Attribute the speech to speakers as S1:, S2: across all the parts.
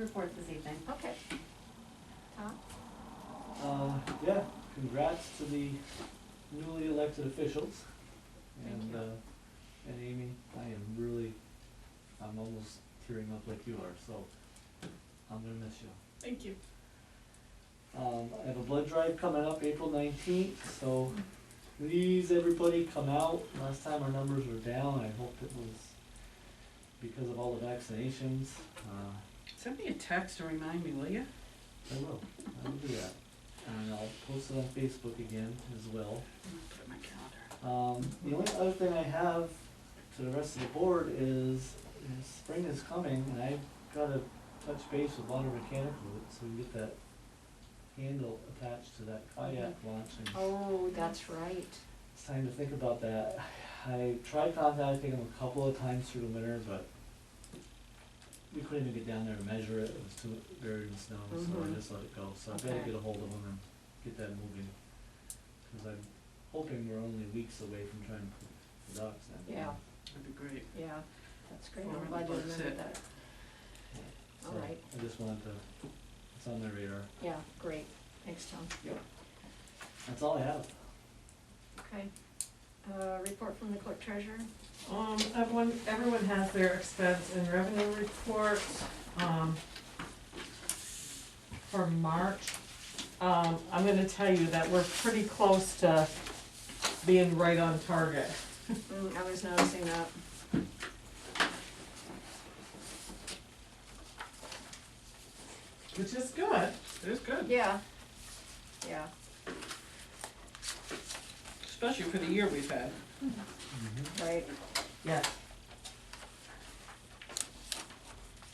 S1: reports this evening.
S2: Okay. Tom?
S3: Uh, yeah, congrats to the newly elected officials.
S2: Thank
S3: And,
S2: you.
S3: uh, and Amy, I am really, I'm almost tearing up like you are, so I'm gonna miss you.
S2: Thank you.
S3: Um, I have a blood drive coming up April nineteenth, so please, everybody, come out. Last time our numbers were down, I hope it was because of all the vaccinations. Uh,
S4: Send me a text to remind me, will you?
S3: I will, I will do that. And I'll post it on Facebook again as well.
S4: Put it in my calendar.
S3: Um, the only other thing I have to the rest of the board is, is spring is coming, and I've gotta touch base with Water Mechanical, so we can get that handle attached to that kayak launch, and
S2: Oh, that's right.
S3: it's time to think about that. I tried contacting them a couple of times through the winter, but we couldn't even get down there and measure it, it was too buried in snow, so
S2: Mhm.
S3: I just let it go, so I've gotta
S2: Okay.
S3: get a hold of them and get that moving. Cause I'm hoping we're only weeks away from trying to put the docks in.
S2: Yeah.
S4: That'd be great.
S2: Yeah, that's great.
S4: Forward
S2: I'm glad you
S4: looks
S2: remembered
S4: it.
S2: that.
S3: So,
S2: Alright.
S3: I just wanted to, it's on the radar,
S2: Yeah, great. Thanks, Tom.
S3: that's all I have.
S2: Okay. Uh, report from the clerk treasurer?
S5: Um, everyone, everyone has their expense and revenue report, um, for March. Um, I'm gonna tell you that we're pretty close to being right on target.
S2: Mm, I was noticing that.
S5: Which is good.
S4: It is good,
S2: Yeah. Yeah.
S4: especially for the year we've had.
S2: Right.
S5: Yes.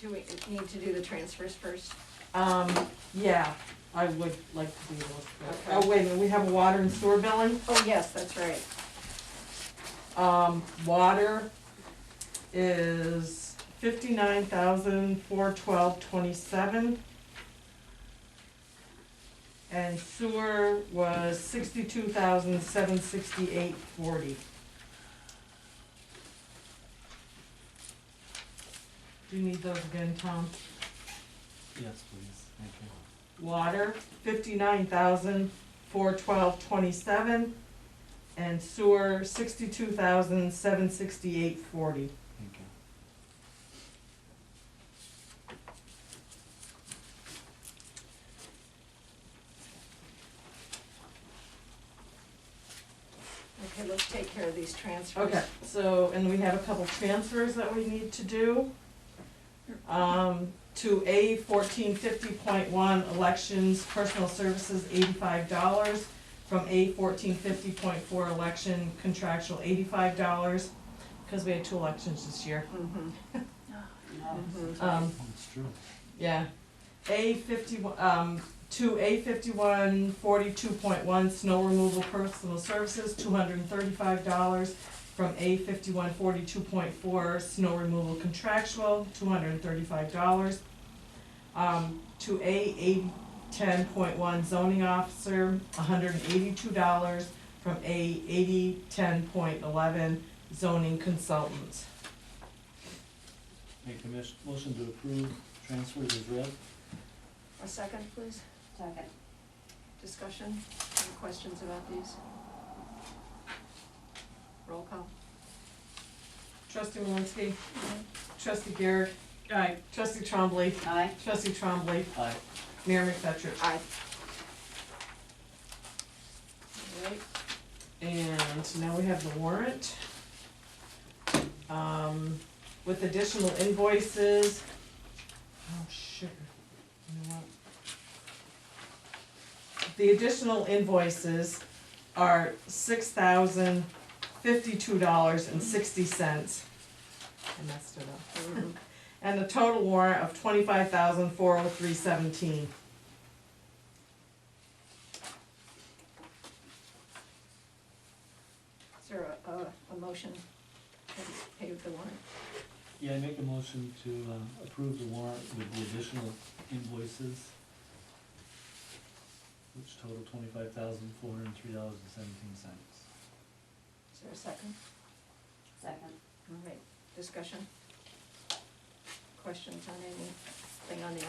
S2: Do we need to do the transfers first?
S5: Um, yeah, I would like to do those. but-
S2: Okay.
S5: Oh, wait, a minute, we have a water and sewer billing.
S2: Oh, yes, that's right.
S5: Um, water is fifty-nine thousand, four twelve, twenty-seven. And sewer was sixty-two thousand, seven sixty-eight, forty. Do you need those again, Tom?
S3: Yes, please, thank you.
S5: Water, fifty-nine thousand, four twelve, twenty-seven. And sewer, sixty-two thousand, seven sixty-eight, forty.
S3: Thank you.
S2: Okay, let's take care of these transfers.
S5: Okay, so, and we have a couple transfers that we need to do. Um, to A fourteen fifty point one, elections, personal services, eighty-five dollars. From A fourteen fifty point four, election, contractual, eighty-five dollars, because we had two elections this year.
S2: Mhm, mhm.
S5: Um,
S3: It's true.
S5: yeah. A fifty, um, to A fifty-one forty-two point one, snow removal personal services, two hundred and thirty-five dollars. From A fifty-one forty-two point four, snow removal contractual, two hundred and thirty-five dollars. Um, to A eighty ten point one zoning officer, hundred and eighty-two dollars. From A eighty ten point eleven zoning consultants.
S3: Make a mis- motion to approve transfers as read.
S2: A second, please.
S1: Second.
S2: Discussion, any questions about these? Roll call.
S5: Trustee Malinsky,
S2: Mm-hmm.
S5: trustee Garrett,
S4: Aye.
S5: trustee Trombley,
S1: Aye.
S5: Trustee Trombley,
S3: Aye.
S5: Mayor McFetrich.
S2: Aye. All right,
S5: And now we have the warrant. Um, with additional invoices. Oh, sugar. You know what? The additional invoices are six thousand fifty-two dollars and sixty cents. I messed it up.
S2: mm,
S5: And a total warrant of twenty-five thousand four oh three seventeen.
S2: Is there a, a, a motion to pay the warrant?
S3: Yeah, I make a motion to, uh, approve the warrant with the additional invoices, which total twenty-five thousand, four hundred and three dollars and seventeen cents.
S2: Is there a second?
S1: Second.
S2: All right, discussion? Questions on anything on the